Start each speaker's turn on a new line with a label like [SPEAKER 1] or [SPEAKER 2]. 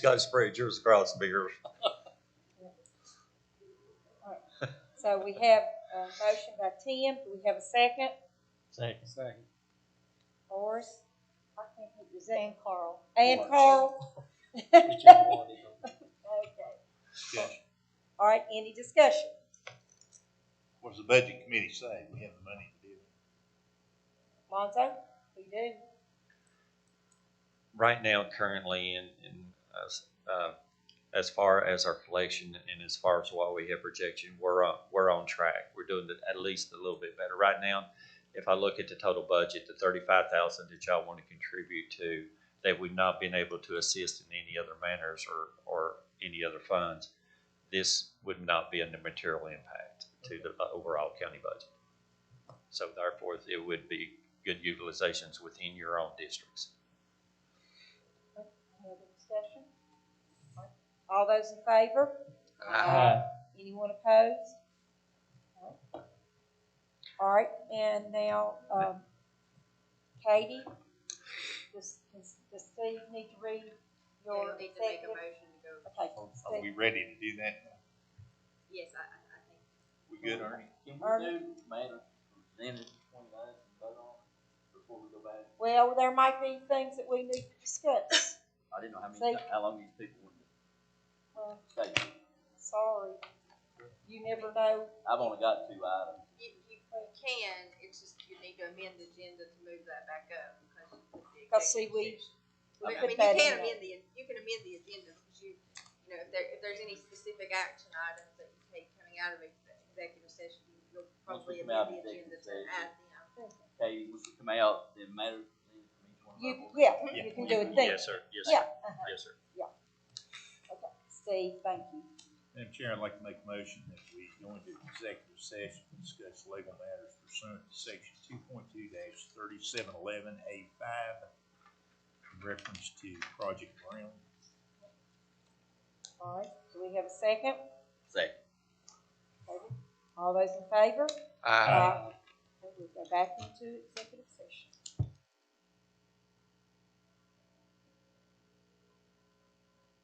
[SPEAKER 1] guy sprayed yours across bigger.
[SPEAKER 2] So we have a motion by Tim, do we have a second?
[SPEAKER 3] Second.
[SPEAKER 4] Second.
[SPEAKER 2] Horace? I can't think of his name. Carl. And
[SPEAKER 4] Horace.
[SPEAKER 2] Carl?
[SPEAKER 4] Which I wanted.
[SPEAKER 2] Okay.
[SPEAKER 5] Discussion.
[SPEAKER 2] All right, any discussion?
[SPEAKER 5] What's the budget committee say? We have the money to do it.
[SPEAKER 2] Lonzo, we do.
[SPEAKER 1] Right now, currently, in, in us, uh, as far as our collection and as far as what we have projection, we're on, we're on track. We're doing the- at least a little bit better. Right now, if I look at the total budget, the thirty-five thousand that y'all want to contribute to, that we've not been able to assist in any other manners or, or any other funds, this would not be a material impact to the uh, overall county budget. So therefore, it would be good utilizations within your own districts.
[SPEAKER 2] Any other discussion? All those in favor?
[SPEAKER 3] Aye.
[SPEAKER 2] Anyone opposed? All right, and now, um, Katie, does, does does Steve need to read
[SPEAKER 6] You'll
[SPEAKER 2] your
[SPEAKER 6] need to make a
[SPEAKER 2] executive?
[SPEAKER 6] motion to go,
[SPEAKER 2] Okay,
[SPEAKER 5] Are
[SPEAKER 2] Steve,
[SPEAKER 5] we ready to do that? now?
[SPEAKER 6] yes, I, I, I think.
[SPEAKER 5] We good, Ernie?
[SPEAKER 4] Can
[SPEAKER 2] Ernie?
[SPEAKER 4] we do matter presented twenty-nine and vote on it before we go back?
[SPEAKER 2] well, there might be things that we need to discuss.
[SPEAKER 4] I didn't know how many,
[SPEAKER 2] Say-
[SPEAKER 4] how long these people would
[SPEAKER 2] Uh,
[SPEAKER 4] stay.
[SPEAKER 2] Sorry, you never know.
[SPEAKER 4] I've only got two items.
[SPEAKER 6] You, you can, it's just you need to amend the agenda to move that back up because. you put the
[SPEAKER 2] Because see,
[SPEAKER 6] executive
[SPEAKER 2] we- we
[SPEAKER 6] session. I mean,
[SPEAKER 2] put
[SPEAKER 6] you
[SPEAKER 2] that
[SPEAKER 6] can
[SPEAKER 2] in there.
[SPEAKER 6] amend the, you can amend the agenda because you, you know, if there, if there's any specific action items that you take coming out of ex- executive session, you'll
[SPEAKER 4] Once
[SPEAKER 6] probably
[SPEAKER 4] we come out
[SPEAKER 6] amend the
[SPEAKER 4] of
[SPEAKER 6] agenda to
[SPEAKER 4] executive session.
[SPEAKER 6] add them.
[SPEAKER 4] Katie, once you come out, then matter presented from each one of
[SPEAKER 2] You,
[SPEAKER 4] our board
[SPEAKER 2] yeah,
[SPEAKER 4] members.
[SPEAKER 2] you can do it then.
[SPEAKER 1] Yes, sir. Yes,
[SPEAKER 2] Yeah,
[SPEAKER 1] sir.
[SPEAKER 2] uh-huh.
[SPEAKER 1] Yes, sir.
[SPEAKER 2] Steve, thank you.
[SPEAKER 5] Madam Chair, I'd like to make a motion that we go into executive session to discuss legal matters pursuant to section two point two thirty-seven eleven A five in reference to Project Brown.
[SPEAKER 2] All right, do we have a second?
[SPEAKER 4] Second.
[SPEAKER 2] All those in favor?
[SPEAKER 3] Aye.
[SPEAKER 2] We'll go back into executive session.